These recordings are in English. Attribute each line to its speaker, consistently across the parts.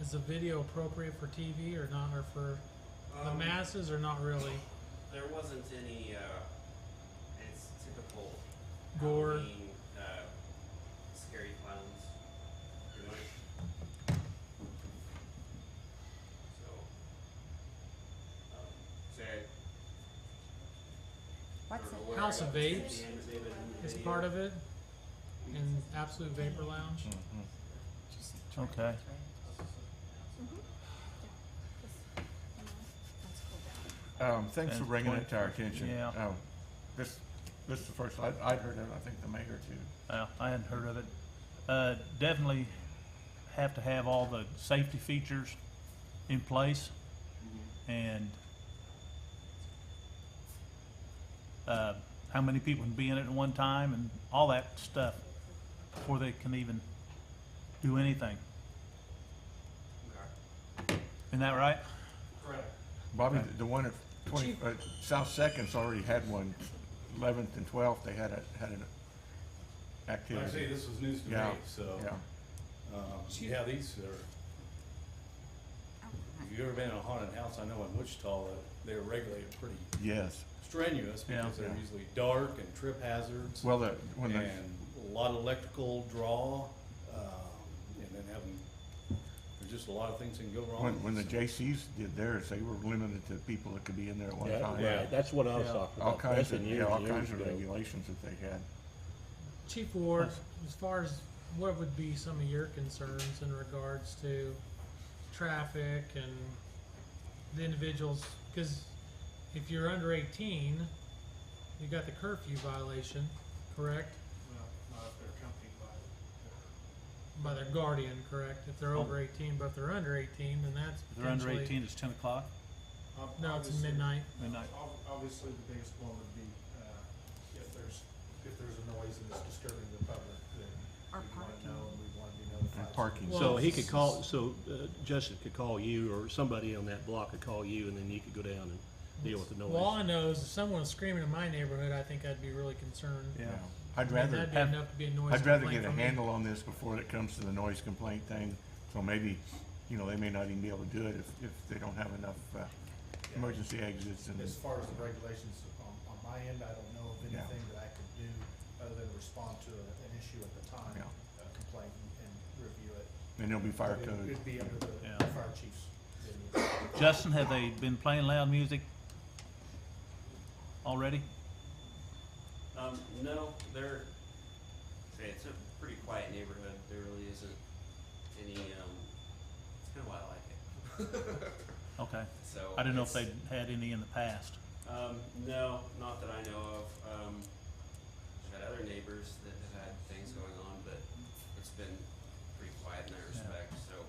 Speaker 1: is the video appropriate for TV or not, or for the
Speaker 2: Um,
Speaker 1: masses or not really?
Speaker 2: There wasn't any. Uh, it's typical
Speaker 1: Gore.
Speaker 2: Halloween, uh, scary clowns, pretty much. So, um, so I
Speaker 3: What's
Speaker 2: don't know
Speaker 3: it?
Speaker 2: where
Speaker 1: House
Speaker 2: I
Speaker 1: of
Speaker 2: got the
Speaker 1: Vapes
Speaker 2: name of it in the
Speaker 1: It's
Speaker 2: video.
Speaker 1: part of it, in Absolute Vapor Lounge.
Speaker 4: Mm-hmm.
Speaker 3: Just try it,
Speaker 5: Okay.
Speaker 3: try it.
Speaker 4: Um, thanks for
Speaker 5: And
Speaker 4: bringing it
Speaker 5: point-
Speaker 4: to our attention.
Speaker 5: yeah.
Speaker 4: Um, this, this is the first, I'd, I'd heard of it, I think the mayor too.
Speaker 5: Uh, I hadn't heard of it. Uh, definitely have to have all the safety features in place and uh, how many people can be in it at one time and all that stuff before they can even do anything.
Speaker 2: Okay.
Speaker 5: Isn't that right?
Speaker 2: Correct.
Speaker 4: Bobby, the- the one at twenty,
Speaker 1: Chief.
Speaker 4: uh, South Second's already had one. Eleventh and twelfth, they had a, had an
Speaker 6: Like I say,
Speaker 4: activity.
Speaker 6: this was news to me,
Speaker 4: Yeah,
Speaker 6: so,
Speaker 4: Yeah,
Speaker 6: um, yeah, these are, if you've ever been in a haunted house, I know in Wichita, that they're regulated pretty
Speaker 4: yes.
Speaker 6: strenuous
Speaker 5: Yeah.
Speaker 6: because they're
Speaker 4: Yeah.
Speaker 6: usually dark and trip hazards
Speaker 4: Well, the, when
Speaker 6: and
Speaker 4: the,
Speaker 6: a lot of electrical draw, um, and then having, there's just a lot of things that can go wrong.
Speaker 4: when, when the
Speaker 6: So-
Speaker 4: J.C.'s did theirs, they were limited to people that could be in there at one
Speaker 7: Yeah,
Speaker 4: time.
Speaker 7: right, that's what I was
Speaker 5: Yeah.
Speaker 7: talking
Speaker 4: All
Speaker 7: about.
Speaker 4: kinds
Speaker 7: That's
Speaker 4: of,
Speaker 7: been
Speaker 4: yeah,
Speaker 7: years
Speaker 4: all
Speaker 7: and years
Speaker 4: kinds of
Speaker 7: ago.
Speaker 4: regulations that they had.
Speaker 1: Chief Ward, as far as what would be some of your concerns in regards to traffic and the individuals, because if you're under eighteen, you got the curfew violation, correct?
Speaker 8: Well, not if they're accompanied by
Speaker 1: By their guardian, correct? If they're over eighteen, but if they're under eighteen, then that's
Speaker 5: Oh. If they're under
Speaker 1: potentially-
Speaker 5: 18, it's 10 o'clock
Speaker 8: ob-
Speaker 1: No, it's
Speaker 8: obviously-
Speaker 1: midnight.
Speaker 5: midnight.
Speaker 8: ob- Obviously, the biggest one would be, uh, if there's, if there's a noise and it's disturbing the public, then
Speaker 3: Or
Speaker 8: we want to
Speaker 3: parking.
Speaker 8: know and we want to be notified.
Speaker 4: And parking.
Speaker 1: Well,
Speaker 7: So he
Speaker 1: it's-
Speaker 7: could call, so uh, Justin could call you or somebody on that block could call you and then you could go down and deal with the
Speaker 1: Well, all
Speaker 7: noise.
Speaker 1: I know is if someone was screaming in my neighborhood, I think I'd be really concerned.
Speaker 5: Yeah.
Speaker 4: Yeah. I'd
Speaker 1: I mean,
Speaker 4: rather.
Speaker 1: That'd be
Speaker 5: have-
Speaker 1: enough to be a noise
Speaker 4: I'd rather
Speaker 1: complaint
Speaker 4: get a
Speaker 1: for me.
Speaker 4: handle on this before it comes to the noise complaint thing, so maybe, you know, they may not even be able to do it if, if they don't have enough, uh, emergency exits and,
Speaker 8: As far as the regulations on, on my end, I don't know of
Speaker 4: Yeah.
Speaker 8: anything that I could do other than respond to a- an issue at the time,
Speaker 4: Yeah.
Speaker 8: uh, complaint and- and review it.
Speaker 4: and there'll be fire
Speaker 8: But it-
Speaker 4: code.
Speaker 8: It'd be under the
Speaker 5: Yeah.
Speaker 8: fire chief's. purview.
Speaker 5: Justin, have they been playing loud music already?
Speaker 2: Um, no, they're, say, it's a pretty quiet neighborhood, there really isn't any, um, it's kinda why I like it.
Speaker 5: Okay.
Speaker 2: So.
Speaker 5: I didn't know if
Speaker 2: it's-
Speaker 5: they'd had any in the past.
Speaker 2: Um, no, not that I know of. Um, I've had other neighbors that have had things going on, but it's been pretty quiet in that
Speaker 5: Yeah.
Speaker 2: respect, so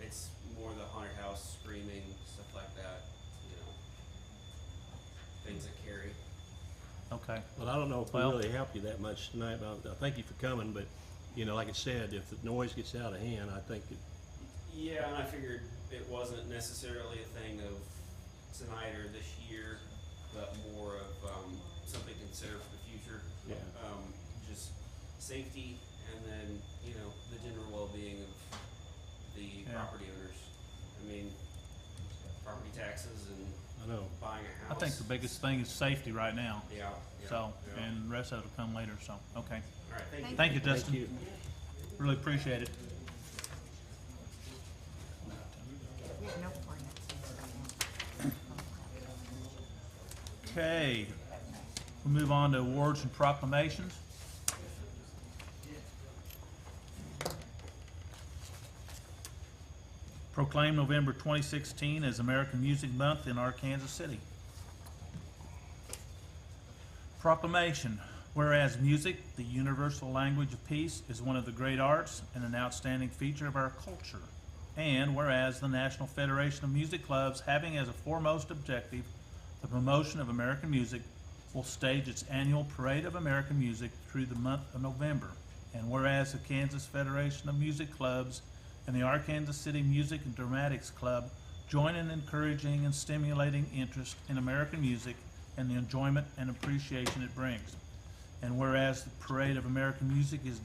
Speaker 2: it's more the haunted house screaming, stuff like that, you know. Things that carry.
Speaker 5: Okay.
Speaker 7: But I don't know if we
Speaker 5: Well-
Speaker 7: really help you that much tonight, but I thank you for coming, but, you know, like I said, if the noise gets out of hand, I think it
Speaker 2: Yeah, and I figured it wasn't necessarily a thing of tonight or this year, but more of um, something to consider for the future.
Speaker 7: Yeah.
Speaker 2: Um, just safety and then, you know, the general well being of the
Speaker 5: Yeah.
Speaker 2: property owners. I mean, property taxes and
Speaker 7: I know.
Speaker 2: buying a
Speaker 5: I
Speaker 2: house.
Speaker 5: think the biggest thing is safety right now.
Speaker 2: Yeah. yeah,
Speaker 5: So,
Speaker 2: yeah.
Speaker 5: and the rest of it will come later, so, okay.
Speaker 2: All right, thank you.
Speaker 5: Thank you,
Speaker 7: Thank
Speaker 5: Dustin.
Speaker 7: you.
Speaker 5: Really appreciate it.
Speaker 3: We have no ordinances right now.
Speaker 5: Okay. We move on to awards and proclamations. Proclaim November 2016 as American Music Month in Arkansas City. Proclamation. Whereas music, the universal language of peace, is one of the great arts and an outstanding feature of our culture. And whereas the National Federation of Music Clubs, having as a foremost objective the promotion of American music, will stage its annual Parade of American Music through the month of November. And whereas the Kansas Federation of Music Clubs and the Arkansas City Music and Dramatics Club join in encouraging and stimulating interest in American music and the enjoyment and appreciation it brings. And whereas the Parade of American Music is